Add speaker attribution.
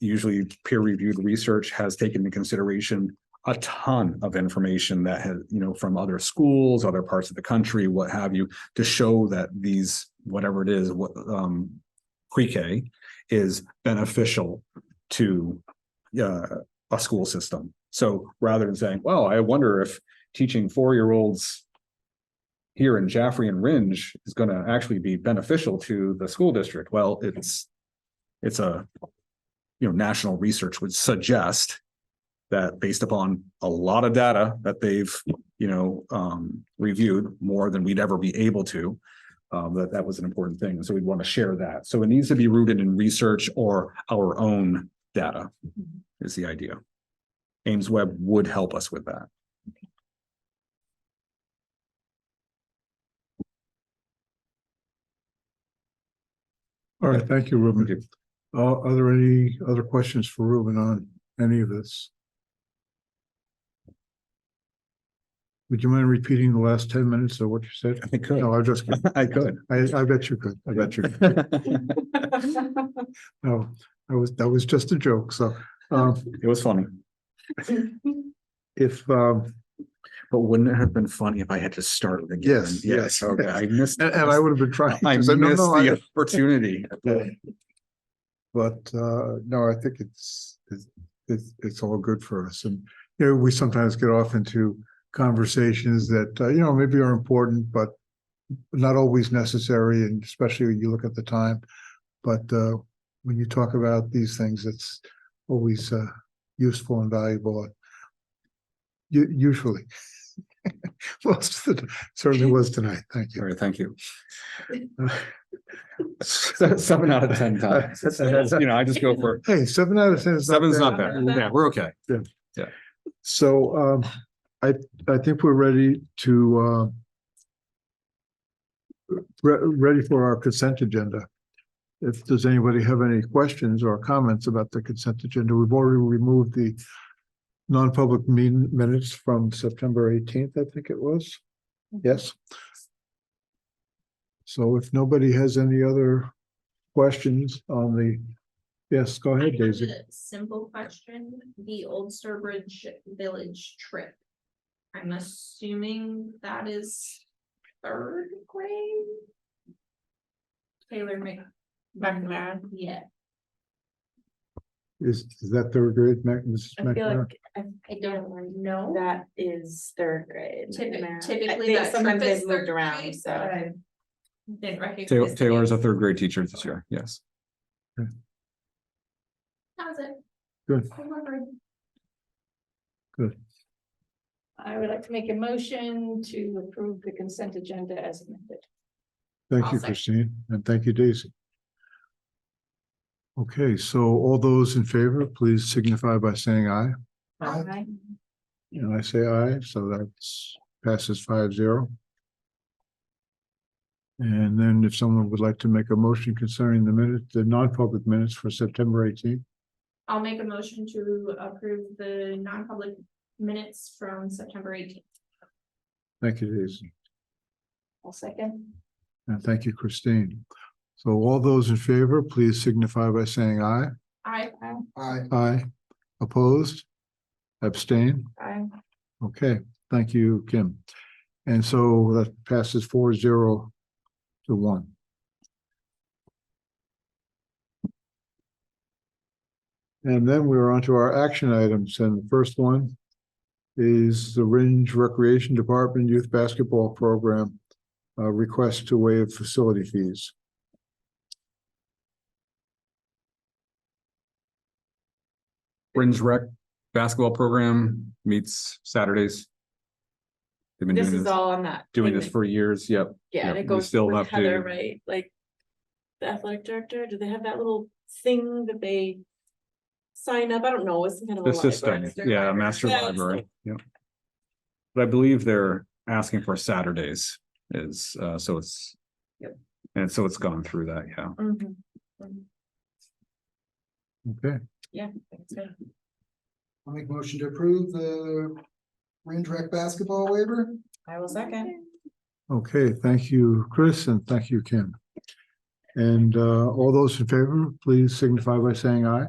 Speaker 1: usually peer reviewed research has taken into consideration a ton of information that has, you know, from other schools, other parts of the country, what have you, to show that these, whatever it is, what, um, pre-K is beneficial to, uh, a school system. So rather than saying, well, I wonder if teaching four-year-olds here in Jaffrey and Ringe is gonna actually be beneficial to the school district. Well, it's, it's a, you know, national research would suggest that based upon a lot of data that they've, you know, um, reviewed more than we'd ever be able to, um, that that was an important thing. So we'd want to share that. So it needs to be rooted in research or our own data is the idea. Ames Web would help us with that.
Speaker 2: All right, thank you,
Speaker 1: Thank
Speaker 2: Ruben.
Speaker 1: you.
Speaker 2: Uh, are there any other questions for Ruben on any of this? Would you mind repeating the last ten minutes of what you said?
Speaker 1: I could.
Speaker 2: No, I just, kidding.
Speaker 1: I could.
Speaker 2: I, I bet you could. I bet you. could.
Speaker 1: It
Speaker 2: No, I was, that was just a joke. So, um,
Speaker 1: was funny.
Speaker 2: if, um,
Speaker 1: But wouldn't it have been funny if I had to start it again?
Speaker 2: Yes, yes.
Speaker 1: Okay, I missed.
Speaker 2: and, and I would have been trying.
Speaker 1: I
Speaker 2: to
Speaker 1: missed
Speaker 2: say, no, no, I-
Speaker 1: the opportunity.
Speaker 2: But uh, no, I think it's, it's- it's, it's all good for us. And, you know, we sometimes get off into conversations that, uh, you know, maybe are important, but not always necessary, and especially when you look at the time. But uh, when you talk about these things, it's always uh, useful and valuable. uh, U- Usually. Most of the, certainly was tonight. Thank
Speaker 1: All
Speaker 2: you.
Speaker 1: right, thank you. So- Seven out of ten times. It's- it's, You know, I just go for,
Speaker 2: Hey, seven out of ten is not
Speaker 1: seven's
Speaker 2: bad.
Speaker 1: not bad. Yeah, we're okay.
Speaker 2: So um, I, I think we're ready to uh. Re- ready for our consent agenda. If does anybody have any questions or comments about the consent agenda, we've already removed the. Non-public meeting minutes from September eighteenth, I think it was. Yes. So if nobody has any other questions on the, yes, go
Speaker 3: I
Speaker 2: ahead,
Speaker 3: have
Speaker 2: Daisy.
Speaker 3: a Simple question, the Old Sturbridge Village trip. I'm assuming that is third grade? Taylor Mc. McNair. Yeah,
Speaker 2: Is, is that third grade, Mac- Mrs.
Speaker 4: I feel
Speaker 2: McNamara?
Speaker 4: like
Speaker 3: I don't know.
Speaker 4: that is third grade.
Speaker 3: Typi-
Speaker 4: math. I
Speaker 3: typically
Speaker 4: think
Speaker 3: that trip
Speaker 4: Sometimes
Speaker 3: is
Speaker 4: they've moved
Speaker 3: third
Speaker 4: around,
Speaker 3: grade,
Speaker 4: so.
Speaker 3: but I Didn't recognize.
Speaker 1: Taylor,
Speaker 3: the
Speaker 1: Taylor's a
Speaker 3: name.
Speaker 1: third grade teacher this year. Yes.
Speaker 3: That was it.
Speaker 2: Good.
Speaker 3: I remembered.
Speaker 5: I would like to make a motion to approve the consent agenda as amended.
Speaker 2: Thank
Speaker 3: I'll
Speaker 2: you,
Speaker 3: second.
Speaker 2: Christine, and thank you, Daisy. Okay, so all those in favor, please signify by saying aye.
Speaker 5: Aye.
Speaker 2: And I say aye, so that's passes five zero. And then if someone would like to make a motion concerning the minute, the non-public minutes for September eighteenth,
Speaker 3: I'll make a motion to approve the non-public minutes from September eighteenth.
Speaker 2: thank you, Daisy,
Speaker 5: I'll second.
Speaker 2: and thank you, Christine. So all those in favor, please signify by saying aye.
Speaker 3: I,
Speaker 2: Aye. Aye. Opposed? Abstain?
Speaker 5: Aye.
Speaker 2: Okay, thank you, Kim. And so that passes four zero to one. And then we're on to our action items, and the first one is the Ringe Recreation Department Youth Basketball Program uh, request to waive facility fees.
Speaker 1: Ringe Rec basketball program meets Saturdays. They've been
Speaker 4: This
Speaker 1: doing
Speaker 4: is
Speaker 1: this,
Speaker 4: all on that.
Speaker 1: doing
Speaker 4: thing
Speaker 1: this
Speaker 4: that-
Speaker 1: for years. Yep.
Speaker 4: Yeah, and
Speaker 1: yeah,
Speaker 4: it
Speaker 1: we
Speaker 4: goes
Speaker 1: still
Speaker 4: with
Speaker 1: have to-
Speaker 4: Heather, right? Like. The athletic director, do they have that little thing that they? Sign up, I don't know, it's some kind of. a
Speaker 1: The
Speaker 4: library.
Speaker 1: system, yeah, master
Speaker 4: Yeah,
Speaker 1: library, yeah. But I believe they're asking for Saturdays is, uh, so it's.
Speaker 3: Yep.
Speaker 1: And so it's gone through that, yeah.
Speaker 4: Mhm.
Speaker 2: Okay,
Speaker 4: Yeah. that's good.
Speaker 6: I'll make a motion to approve the Range Rec basketball waiver.
Speaker 4: I will second.
Speaker 2: okay, thank you, Chris, and thank you, Kim. And uh, all those in favor, please signify by saying aye.